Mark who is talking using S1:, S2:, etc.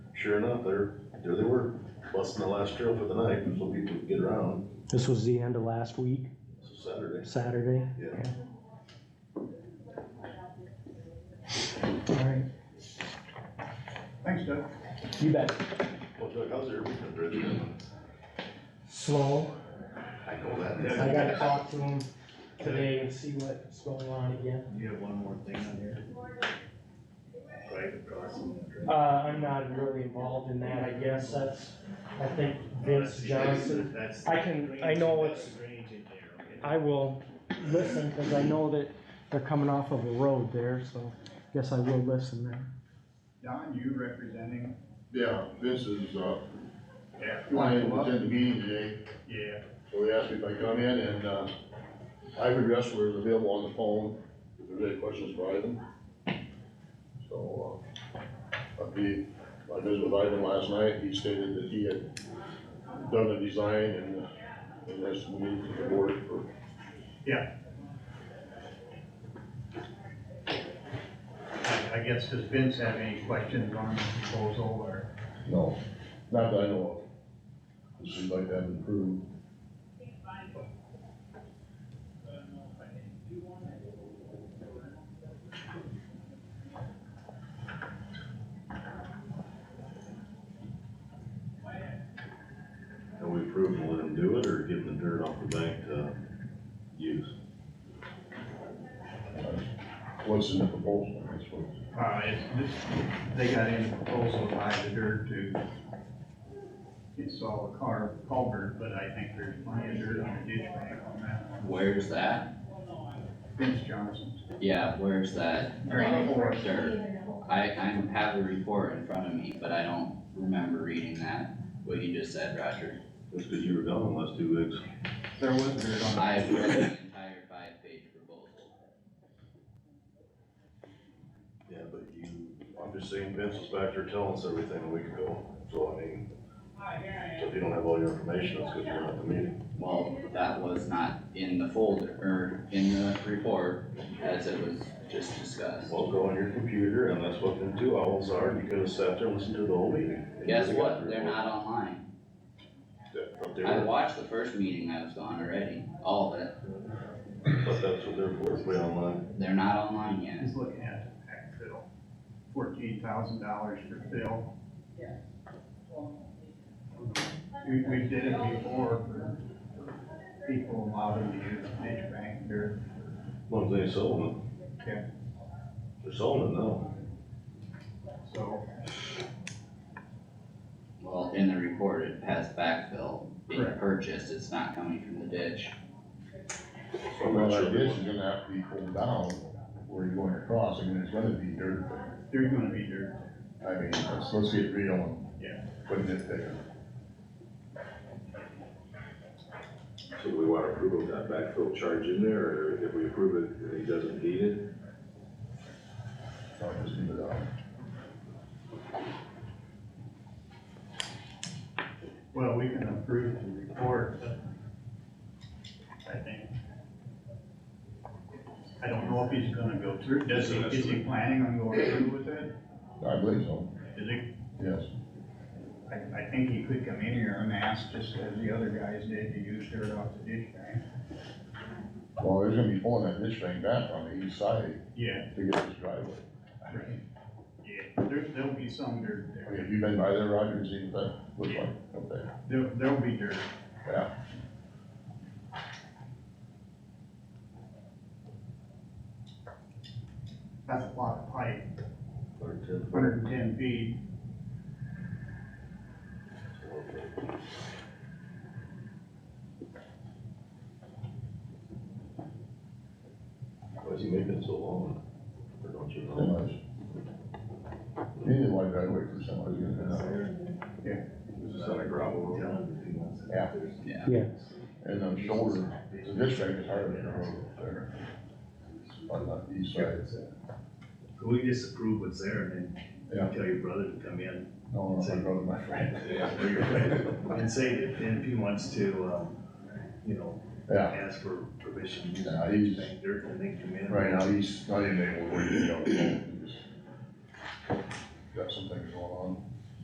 S1: sure enough, there, there they were, busting the last trail for the night, so people could get around,
S2: This was the end of last week,
S1: so Saturday,
S2: Saturday.
S1: yeah.
S2: Alright,
S3: Thanks, Doug.
S2: you bet.
S1: Well, Doug, how's your weekend, Brendan?
S2: Slow,
S1: I know that.
S3: Yeah.
S2: I gotta talk to him today and see what's going on again.
S3: You have one more thing on here? Right across from that drain.
S2: Uh, I'm not really involved in that, I guess, that's, I think Vince Johnson.
S3: That's-
S2: I can- I know
S3: that's
S2: it's-
S3: the drainage in there, okay?
S2: I will listen, cause I know that they're coming off of a road there, so guess I will listen then.
S3: Don, you representing?
S4: Yeah, this is, uh,
S3: Yeah.
S4: I was in the meeting today,
S3: Yeah,
S4: so he asked me if I come in and, uh, Ivan Dressler is available on the phone, if there's any questions for Ivan. So, uh, I'd be, I visited with Ivan last night, he stated that he had done the design and, uh, and has moved to the board for.
S3: I I guess, does Vince have any questions on the proposal or?
S4: No. Not that I know of, it seems like that improved.
S1: And we approved to let him do it, or give him the dirt off the bank to use?
S4: What's in the proposal, I suppose?
S3: Uh, it's, this, they got in a proposal to buy the dirt to install a car culvert, but I think there's plenty of dirt on the ditch bank on that one.
S5: Where's that?
S3: Vince Johnson's.
S5: Yeah, where's that?
S3: Drain forest.
S5: Dirt. I, I have the report in front of me, but I don't remember reading that, what you just said, Roger.
S1: That's because you were gone the last two weeks.
S3: There was dirt on.
S5: I have read the entire five-page proposal.
S1: Yeah, but you, I'm just saying Vince was back there telling us everything a week ago, so I mean, so if you don't have all your information, it's because you weren't at the meeting.
S5: Well, that was not in the folder, or in the report, as it was just discussed.
S1: Well, go on your computer, and that's what them two owls are, and you could have sat there and listened to the whole meeting.
S5: Guess what? They're not online.
S1: Yeah, But they
S5: I
S1: were,
S5: watched the first meeting I was on already, all of it.
S1: but that's what they're for, play online.
S5: They're not online yet.
S3: He's looking at the pack fill, fourteen thousand dollars for fill. We, we did it before for people allowed them to use ditch bank dirt.
S1: One thing they sold it.
S3: Yeah.
S1: They're selling it now.
S3: So,
S5: Well, in the report, it has backfill being
S3: Correct.
S5: purchased, it's not coming from the ditch.
S1: I'm
S4: Well,
S1: not sure
S4: that ditch is
S1: what-
S4: gonna have to be pulled down where you're going across, I mean, it's gonna be dirt, but,
S3: they're gonna be dirt.
S4: I mean, let's, let's get real and.
S3: Yeah.
S4: Putting it there.
S1: So we want to approve of that backfill charge in there, or if we approve it, and he doesn't need it?
S4: So I just leave it out.
S3: Well, we can approve the report, but I think. I don't know if he's gonna go through, does he, is he planning on going through with it?
S4: I believe so,
S3: Is he,
S4: yes.
S3: I, I think he could come in here and ask, just as the other guys did, to use dirt off the ditch bank.
S4: Well, there's gonna be pulling that ditch thing back on the east side
S3: Yeah,
S4: to get this driveway.
S3: right. Yeah, there, there'll be some dirt
S4: Okay,
S3: there,
S4: Have you been by there, Roger, and seen what that looks like? Okay,
S3: there, there'll be dirt.
S4: yeah.
S3: That's a lot of pipe,
S1: Or ten foot.
S3: hundred and ten feet,
S1: Why's he making it so long? Or don't you know?
S4: Semis. You need a wide driveway for somebody's gonna come out here.
S1: Is this on a gravel road?
S4: Yeah.
S5: Yeah.
S2: Yeah.
S4: And on shoulder, the ditch bank is hardly a road up there. On the east side.
S6: Can we just approve what's there and
S4: Yeah.
S6: then tell your brother to come in
S4: No, no, my brother, my friend.
S6: or your friend and say that if he wants to, um, you know,
S4: Yeah,
S6: ask for permission to use
S4: Yeah, he's-
S6: bank dirt and then come in.
S4: right now, he's not even able to work, you know, he's got some things going on.